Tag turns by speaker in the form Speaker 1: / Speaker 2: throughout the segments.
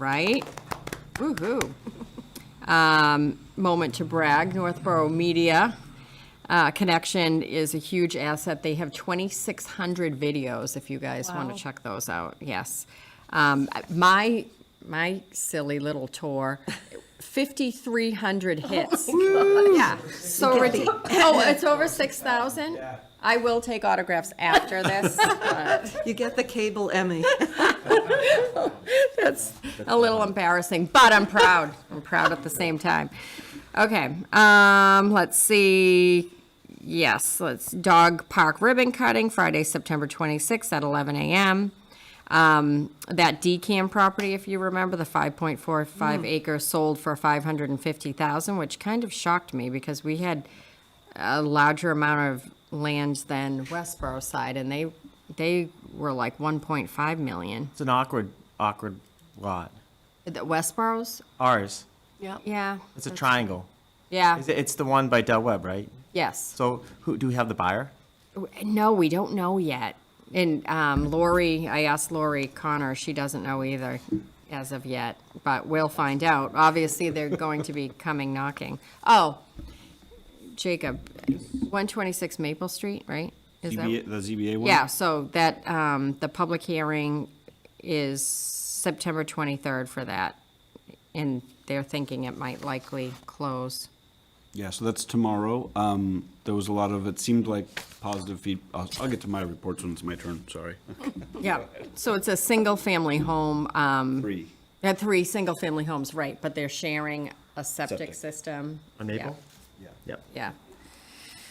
Speaker 1: right? Woo-hoo. Um, Moment to brag, Northborough Media uh, Connection is a huge asset. They have 2,600 videos, if you guys want
Speaker 2: Wow.
Speaker 1: to check those out, yes. Um, My, my silly little tour, 5,300 hits. Yeah, so ridiculous. Oh, it's over 6,000? I will take autographs after this.
Speaker 3: You get the cable Emmy.
Speaker 1: That's a little embarrassing, but I'm proud. I'm proud at the same time. Okay, um, let's see. Yes, let's, dog park ribbon cutting, Friday, September 26th at 11 a.m. Um, that decam property, if you remember, the 5.45 acre sold for 550,000, which kind of shocked me because we had a larger amount of land than Westboro side and they, they were like 1.5 million.
Speaker 4: It's an awkward, awkward lot.
Speaker 1: The Westboro's?
Speaker 4: Ours.
Speaker 1: Yeah.
Speaker 4: It's a triangle.
Speaker 1: Yeah,
Speaker 4: Is it- It's the one by Del Webb, right?
Speaker 1: yes.
Speaker 4: So who do we have the buyer?
Speaker 1: No, we don't know yet. And um, Lori, I asked Lori Connor, she doesn't know either as of yet, but we'll find out. Obviously, they're going to be coming knocking. Oh, Jacob, 126 Maple Street, right? Is that-
Speaker 5: ZBA, the ZBA one?
Speaker 1: Yeah, so that, um, the public hearing is September 23rd for that. And they're thinking it might likely close.
Speaker 5: Yeah, so that's tomorrow. Um, there was a lot of, it seemed like positive feed, I'll, I'll get to my reports when it's my turn, sorry.
Speaker 1: Yeah, so it's a single-family home, um,
Speaker 5: Three.
Speaker 1: uh, three single-family homes, right, but they're sharing a septic
Speaker 5: Septic.
Speaker 1: system.
Speaker 4: On Maple?
Speaker 5: Yeah.
Speaker 4: Yep.
Speaker 1: Yeah.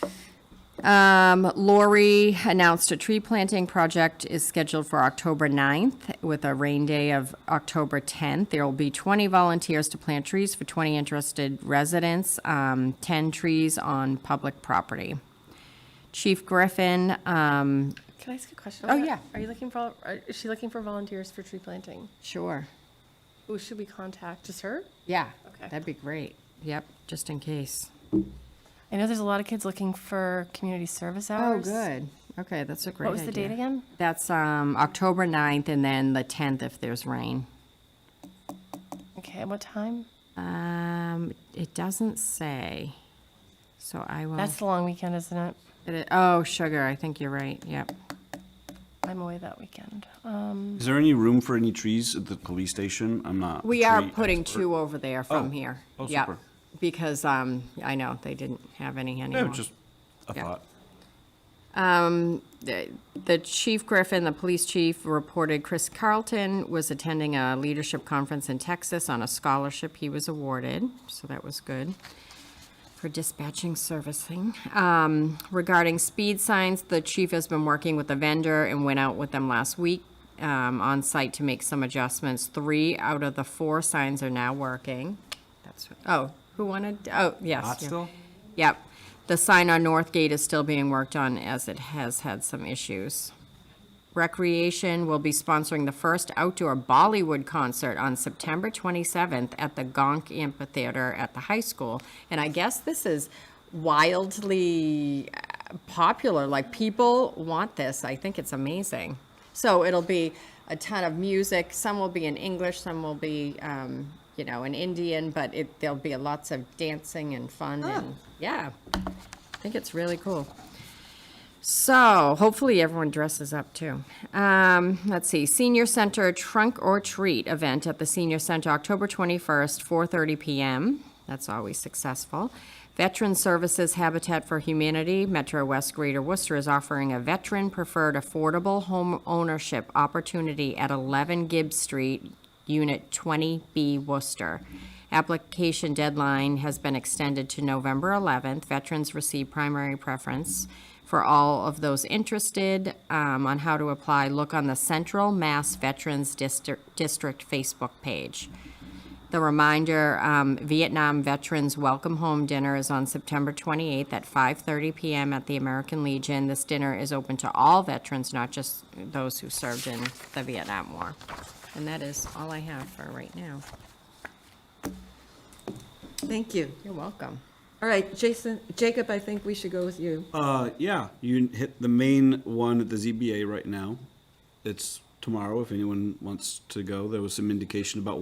Speaker 1: yeah. Um, Lori announced a tree planting project is scheduled for October 9th with a rain day of October 10th. There will be 20 volunteers to plant trees for 20 interested residents, um, 10 trees on public property. Chief Griffin, um,
Speaker 2: Can I ask a question?
Speaker 1: Oh,
Speaker 2: on that?
Speaker 1: yeah.
Speaker 2: Are you looking for, are- is she looking for volunteers for tree planting?
Speaker 1: sure.
Speaker 2: Who should we contact? Just her?
Speaker 1: Yeah,
Speaker 2: Okay.
Speaker 1: that'd be great. Yep, just in case.
Speaker 2: I know there's a lot of kids looking for community service hours.
Speaker 1: Okay, that's a Oh, great
Speaker 2: What was the date again?
Speaker 1: That's um, October 9th and then the 10th if there's rain.
Speaker 2: Okay, and what time?
Speaker 1: Oh. Um, it doesn't say, so I will.
Speaker 2: That's the long weekend, isn't it?
Speaker 1: it- Oh, sugar, I think you're right, yep.
Speaker 2: I'm away that weekend. Um,
Speaker 5: Is there any room for any trees at the police station? I'm not. a
Speaker 1: We are
Speaker 5: tree
Speaker 1: putting
Speaker 5: expert.
Speaker 1: two over there from
Speaker 5: Oh.
Speaker 1: here.
Speaker 5: Oh,
Speaker 1: Yep.
Speaker 5: super.
Speaker 1: Because um, I know, they didn't have any
Speaker 5: No,
Speaker 1: anymore.
Speaker 5: just a
Speaker 1: Yeah.
Speaker 5: thought.
Speaker 1: the the Chief Griffin, the police chief, reported Chris Carlton was attending a leadership conference in Texas on a scholarship he was awarded, so that was good for dispatching servicing. Um, regarding speed signs, the chief has been working with the vendor and went out with them last week um, on site to make some adjustments. Three out of the four signs are now working. That's, oh, who wanted, oh, yes. yeah.
Speaker 4: Pottsville?
Speaker 1: Yep. The sign on North Gate is still being worked on as it has had some issues. Recreation will be sponsoring the first outdoor Bollywood concert on September 27th at the Gonk Amphitheater at the high school. And I guess this is wildly uh, popular, like people want this. I think it's amazing. So it'll be a ton of music. Some will be in English, some will be, um, you know, in Indian, but it, there'll be lots of dancing and fun and, yeah. I think it's really cool. So hopefully everyone dresses up too. Um, let's see, Senior Center Trunk or Treat event at the Senior Center, October 21st, 4:30 PM. That's always successful. Veteran Services Habitat for Humanity, Metro West Greater Worcester is offering a veteran-preferred affordable home ownership opportunity at 11 Gibbs Street, Unit 20B Worcester. Application deadline has been extended to November 11th. Veterans receive primary preference. For all of those interested um, on how to apply, look on the Central Mass Veterans District District Facebook page. The reminder, um, Vietnam Veterans Welcome Home Dinner is on September 28th at 5:30 PM at the American Legion. This dinner is open to all veterans, not just those who served in the Vietnam War. And that is all I have for right now.
Speaker 3: Thank you.
Speaker 1: You're welcome.
Speaker 3: All right, Jason, Jacob, I think we should go with you.
Speaker 5: Uh, yeah, you hit the main one at the ZBA right now. It's tomorrow if anyone wants to go. There was some indication about